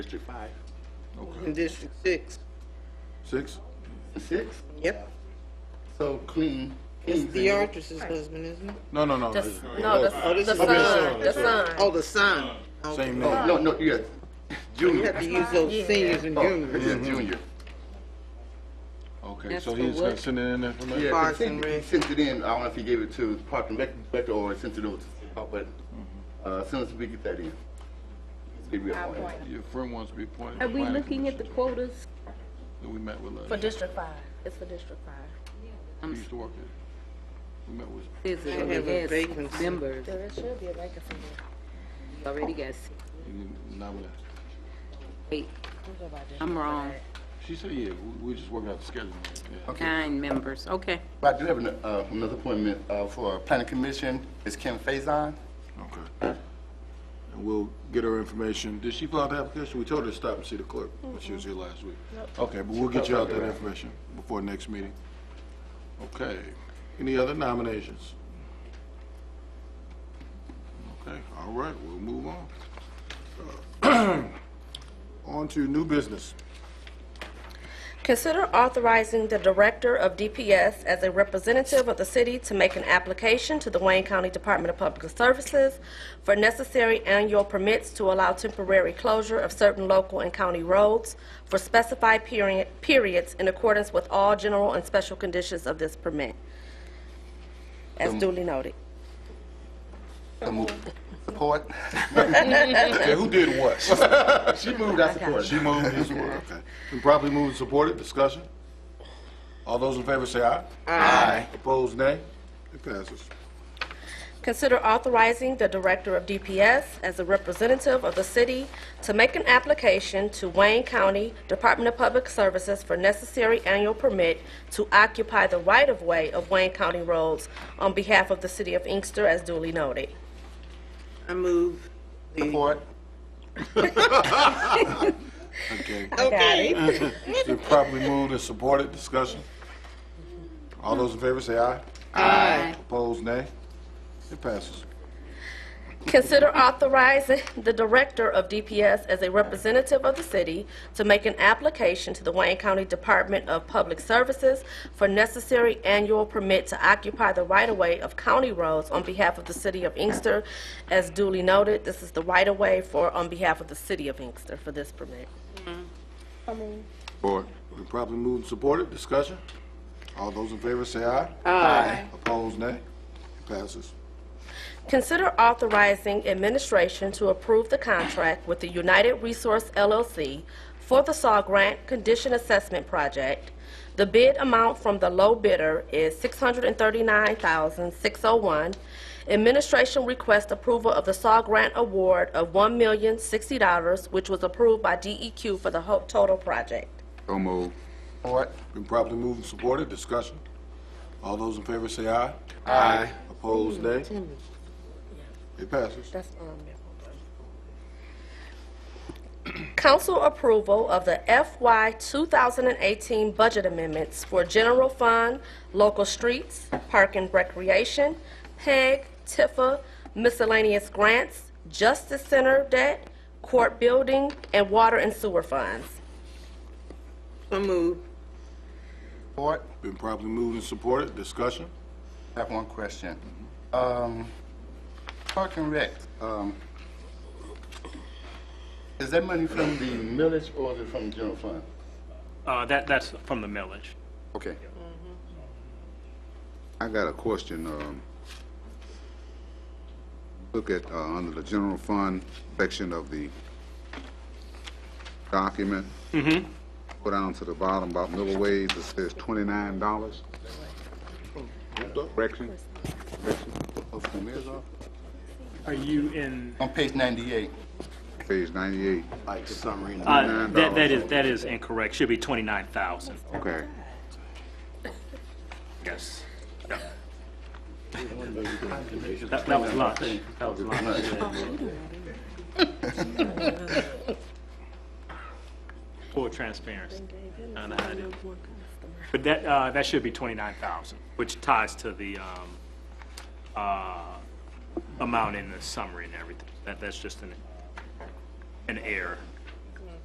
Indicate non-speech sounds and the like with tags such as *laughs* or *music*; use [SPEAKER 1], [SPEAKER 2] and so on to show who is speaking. [SPEAKER 1] District five.
[SPEAKER 2] in District Six.
[SPEAKER 1] Six? Six?
[SPEAKER 2] Yep,
[SPEAKER 1] So clean.
[SPEAKER 2] it's the actress's husband, isn't it?
[SPEAKER 1] No, no, no.
[SPEAKER 3] The,
[SPEAKER 1] it's-
[SPEAKER 3] s- no, the,
[SPEAKER 2] Oh, this
[SPEAKER 3] the
[SPEAKER 2] is-
[SPEAKER 3] son,
[SPEAKER 1] okay,
[SPEAKER 3] the
[SPEAKER 1] sorry.
[SPEAKER 3] son.
[SPEAKER 2] Oh, the son. Okay.
[SPEAKER 1] Same No, name.
[SPEAKER 4] Oh, No, no,
[SPEAKER 2] *laughs*
[SPEAKER 4] yes,
[SPEAKER 2] You have
[SPEAKER 4] junior.
[SPEAKER 2] to use those
[SPEAKER 3] Yeah.
[SPEAKER 2] seniors and
[SPEAKER 4] Oh,
[SPEAKER 2] juniors.
[SPEAKER 4] Yeah, junior.
[SPEAKER 1] Okay,
[SPEAKER 2] That's
[SPEAKER 1] so
[SPEAKER 2] for
[SPEAKER 1] he's
[SPEAKER 2] what?
[SPEAKER 1] gonna send in that information?
[SPEAKER 4] Yeah, 'cause he
[SPEAKER 2] Parks and
[SPEAKER 4] sent, he
[SPEAKER 2] Rec.
[SPEAKER 4] sent it in, I don't know if he gave it to Park and Rec Director or sent it over to, City Hall, but,
[SPEAKER 2] Mm-hmm.
[SPEAKER 4] uh, as soon as we get that in. it'll be on it.
[SPEAKER 1] Your friend wants to be appointed.
[SPEAKER 5] Are we
[SPEAKER 1] planning
[SPEAKER 5] looking at the
[SPEAKER 1] commission
[SPEAKER 5] quotas?
[SPEAKER 1] That we met with,
[SPEAKER 3] For
[SPEAKER 1] uh,
[SPEAKER 3] District Five, it's for District Five.
[SPEAKER 1] he used to work at. We met with,
[SPEAKER 5] Is it
[SPEAKER 2] have a
[SPEAKER 5] already has six
[SPEAKER 2] vacancy.
[SPEAKER 5] members?
[SPEAKER 3] There should be a vacancy
[SPEAKER 5] Already got six.
[SPEAKER 1] he- not with us.
[SPEAKER 5] Eight, I'm wrong,
[SPEAKER 1] She said, yeah, we, we just working out the schedule. yeah.
[SPEAKER 5] nine members, okay.
[SPEAKER 4] But I do have an- uh, another appointment, uh, for Planning Commission, it's Kim Faison.
[SPEAKER 1] Okay. And we'll get her information. Did she fill out the application? We told her to stop and see the clerk when she was here last week. Okay, but we'll get you out that information before next meeting. Okay. Any other nominations? Okay, all right, we'll move on. *clears throat* On to new business.
[SPEAKER 3] Consider authorizing the Director of DPS as a representative of the city to make an application to the Wayne County Department of Public Services for necessary annual permits to allow temporary closure of certain local and county roads for specified period, periods in accordance with all general and special conditions of this permit, as duly noted.
[SPEAKER 4] So move. Support.
[SPEAKER 2] *laughs*
[SPEAKER 1] Okay, who did what?
[SPEAKER 4] She moved, I supported.
[SPEAKER 1] She moved, he supported, okay. Been properly moved and supported, discussion? All those in favor say aye. Aye. Opposed, nay? It passes.
[SPEAKER 3] Consider authorizing the Director of DPS as a representative of the city to make an application to Wayne County Department of Public Services for necessary annual permit to occupy the right-of-way of Wayne County roads on behalf of the city of Inkster, as duly noted.
[SPEAKER 2] I move the.
[SPEAKER 4] Support.
[SPEAKER 1] Okay.
[SPEAKER 2] Okay.
[SPEAKER 1] Been properly moved and supported, discussion? All those in favor say aye. Aye. Opposed, nay? It passes.
[SPEAKER 3] Consider authorizing the Director of DPS as a representative of the city to make an application to the Wayne County Department of Public Services for necessary annual permit to occupy the right-of-way of county roads on behalf of the city of Inkster. As duly noted, this is the right-of-way for, on behalf of the city of Inkster for this permit.
[SPEAKER 1] Board. Been properly moved and supported, discussion? All those in favor say aye. Aye. Opposed, nay? It passes.
[SPEAKER 3] Consider authorizing administration to approve the contract with the United Resource LLC for the SAW Grant Condition Assessment Project. The bid amount from the low bidder is $639,601. Administration requests approval of the SAW Grant Award of $1,060, which was approved by DEQ for the ho- total project.
[SPEAKER 1] So moved.
[SPEAKER 4] Support.
[SPEAKER 1] Been properly moved and supported, discussion? All those in favor say aye.
[SPEAKER 4] Aye.
[SPEAKER 1] Opposed, nay? It passes.
[SPEAKER 3] That's, um, yeah, hold on. Council approval of the FY 2018 budget amendments for general fund, local streets, park and recreation, PEG, Tifa, miscellaneous grants, justice center debt, court building, and water and sewer funds.
[SPEAKER 2] I move.
[SPEAKER 4] Support.
[SPEAKER 1] Been properly moved and supported, discussion?
[SPEAKER 4] I have one question. Um, Park and Rec, um, is that money from the millage or is it from the general fund?
[SPEAKER 6] Uh, that, that's from the millage.
[SPEAKER 4] Okay.
[SPEAKER 7] I got a question. um, Look at, uh, under the general fund section of the document. Go down to the bottom about middle ways, it says twenty-nine dollars. Correction?
[SPEAKER 4] Of whom is it?
[SPEAKER 6] Are you in?
[SPEAKER 4] On page 98.
[SPEAKER 7] Page ninety-eight.
[SPEAKER 4] Like summary.
[SPEAKER 6] Uh, that, that is, that is incorrect. Should be twenty-nine thousand.
[SPEAKER 7] Okay.
[SPEAKER 6] Yes. Yeah. That, that was lunch. That was lunch. *laughs* Full transparency. I don't know how to do it. But that, uh, that should be twenty-nine thousand, which ties to the, um, uh, amount in the summary and everything. That, that's just an, an error.